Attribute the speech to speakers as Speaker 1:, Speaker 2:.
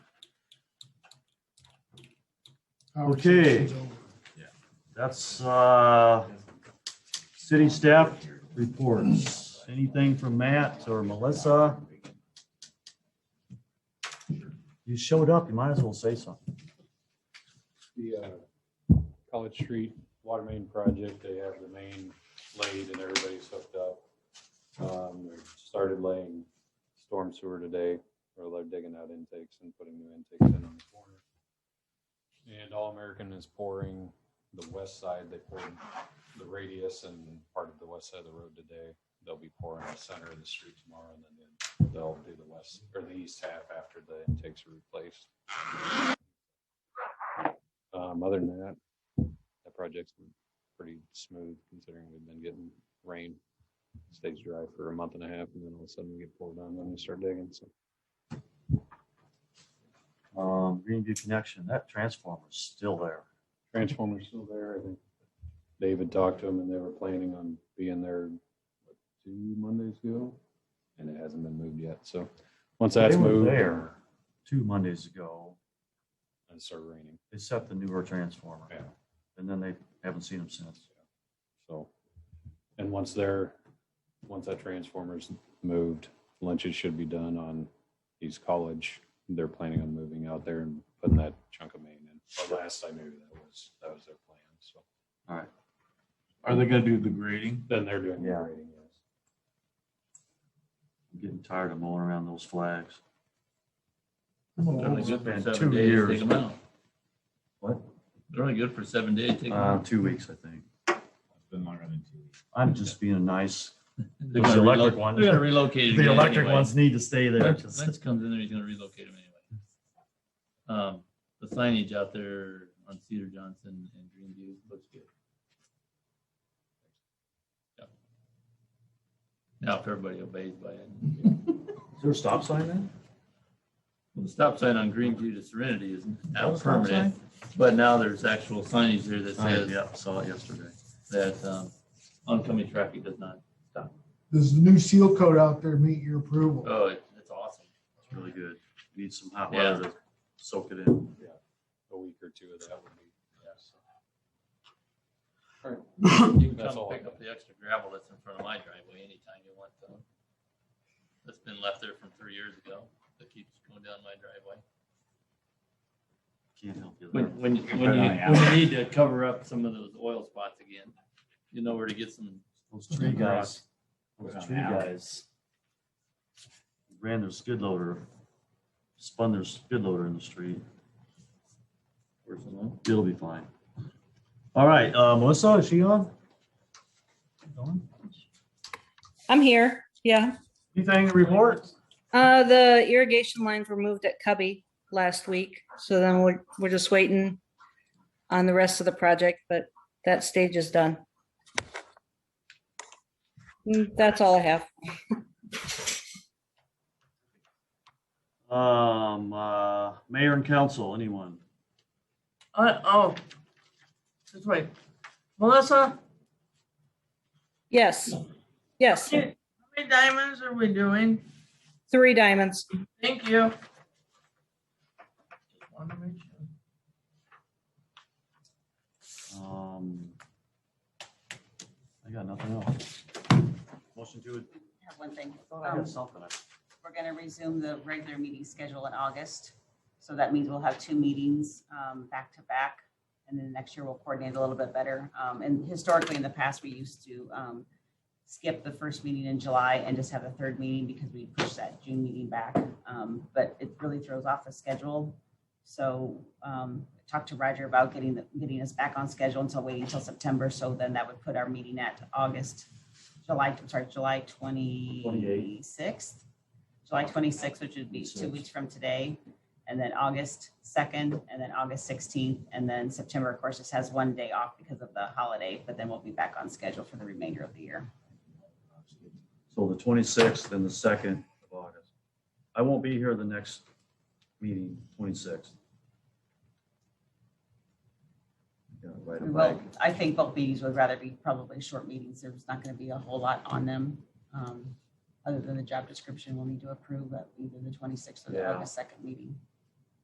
Speaker 1: Our
Speaker 2: Okay.
Speaker 1: session's over.
Speaker 2: That's, uh, city staff reports. Anything from Matt or Melissa? You showed up, you might as well say something.
Speaker 3: the uh, College Street Water Main Project, they have the main laid and everybody's hooked up. Um, we Started laying storm sewer today, where they're digging out intakes and putting new intakes in on the corner. And All American is pouring the west side, they poured the radius and part of the west side of the road today. They'll be pouring the center of the street tomorrow and then they'll do the west or the east half after the intakes are replaced. Um, other than that, that project's been pretty smooth considering we've been getting rain. Stays dry for a month and a half and then all of a sudden we get poured on when we start digging. So
Speaker 2: Um, Greenview Connection, that transformer's still there.
Speaker 3: transformer's still there. I think David talked to him and they were planning on being there what, two Mondays ago. And it hasn't been moved yet. So once that's
Speaker 2: They were
Speaker 3: moved,
Speaker 2: There, two Mondays ago,
Speaker 3: it started raining.
Speaker 2: they set the newer transformer.
Speaker 3: Yeah.
Speaker 2: And then they haven't seen them since.
Speaker 3: So, and once they're, once that transformer's moved, lunches should be done on East College. They're planning on moving out there and putting that chunk of main in. But last I knew, that was, that was their plan, so.
Speaker 4: Are they gonna do the grading?
Speaker 3: Then they're doing the
Speaker 2: Yeah.
Speaker 3: grading, yes.
Speaker 2: I'm getting tired of mowing around those flags.
Speaker 1: I'm
Speaker 4: They're
Speaker 1: gonna
Speaker 4: only
Speaker 1: over-
Speaker 4: good for
Speaker 2: been
Speaker 4: seven
Speaker 2: two
Speaker 4: days,
Speaker 2: years,
Speaker 4: take 'em
Speaker 2: but-
Speaker 4: out.
Speaker 2: What?
Speaker 4: They're only good for seven days, take them
Speaker 2: Uh,
Speaker 4: out.
Speaker 2: two weeks, I think.
Speaker 4: It's been longer than two weeks.
Speaker 2: I'm just being a nice.
Speaker 4: They're
Speaker 2: Those
Speaker 4: gonna
Speaker 2: electric
Speaker 4: relo-
Speaker 2: ones.
Speaker 4: They're gonna relocate. it
Speaker 2: The
Speaker 4: again
Speaker 2: electric
Speaker 4: anyway.
Speaker 2: ones need to stay there.
Speaker 4: Lance
Speaker 2: just-
Speaker 4: Lance comes in there, he's gonna relocate him anyway. Um, the signage out there on Cedar Johnson and Greenview looks good. Yep. Now if everybody obeys by it.
Speaker 2: Is there a stop sign then?
Speaker 4: Well, The stop sign on Greenview to Serenity is now permanent, but now there's actual signage there that
Speaker 2: I
Speaker 4: says
Speaker 2: saw it yesterday.
Speaker 4: that, um, oncoming traffic does not.
Speaker 1: Does the new seal code out there meet your approval?
Speaker 4: Oh, it- it's awesome.
Speaker 2: It's really good. Need some hot
Speaker 4: Yeah.
Speaker 2: weather to soak it in.
Speaker 3: A week or two of that would be, yes.
Speaker 4: You can
Speaker 3: That's
Speaker 4: come
Speaker 3: all I
Speaker 4: pick
Speaker 3: got.
Speaker 4: up the extra gravel that's in front of my driveway anytime you want to. That's been left there from three years ago. That keeps going down my driveway.
Speaker 2: Can't help you
Speaker 4: When,
Speaker 2: there.
Speaker 4: when, you- when you, when you need to cover up some of those oil spots again, you know where to get some.
Speaker 2: Those tree guys, those tree guys. Ran their skid loader, spun their skid loader in the street. It'll be fine. All right, uh, Melissa, is she on? On?
Speaker 5: I'm here, yeah.
Speaker 2: Anything to report?
Speaker 5: Uh, the irrigation lines were moved at Cubby last week, so then we're, we're just waiting on the rest of the project, but that stage is done. Mm, That's all I have.
Speaker 2: Um, uh, mayor and council, anyone?
Speaker 6: Uh, oh, this way. Melissa,
Speaker 5: Yes, yes,
Speaker 6: how many diamonds are we doing?
Speaker 5: three diamonds.
Speaker 6: Thank you. Just wanted to make sure.
Speaker 2: Um, I got nothing else. Motion to,
Speaker 7: I have one thing.
Speaker 2: I
Speaker 7: Um,
Speaker 2: got something.
Speaker 7: We're going to resume the regular meeting schedule in August. So that means we'll have two meetings um, back to back. And then next year we'll coordinate a little bit better. Um, And historically, in the past, we used to um, skip the first meeting in July and just have a third meeting because we pushed that June meeting back. Um, But it really throws off the schedule. So um, talked to Roger about getting, the- getting us back on schedule until waiting until September. So then that would put our meeting at August, July, I'm sorry, July 26th. July 26th, which would be two
Speaker 2: 26th.
Speaker 7: weeks from today, and then August 2nd, and then August 16th, and then September, of course, just has one day off because of the holiday, but then we'll be back on schedule for the remainder of the year.
Speaker 2: So the twenty-sixth and the second of August. I won't be here the next meeting, twenty-sixth. Right
Speaker 7: We
Speaker 2: away.
Speaker 7: will, I think both meetings would rather be probably short meetings. There's not going to be a whole lot on them. um, Other than the job description we'll need to approve at either the 26th or the
Speaker 2: Yeah.
Speaker 7: August 2nd meeting.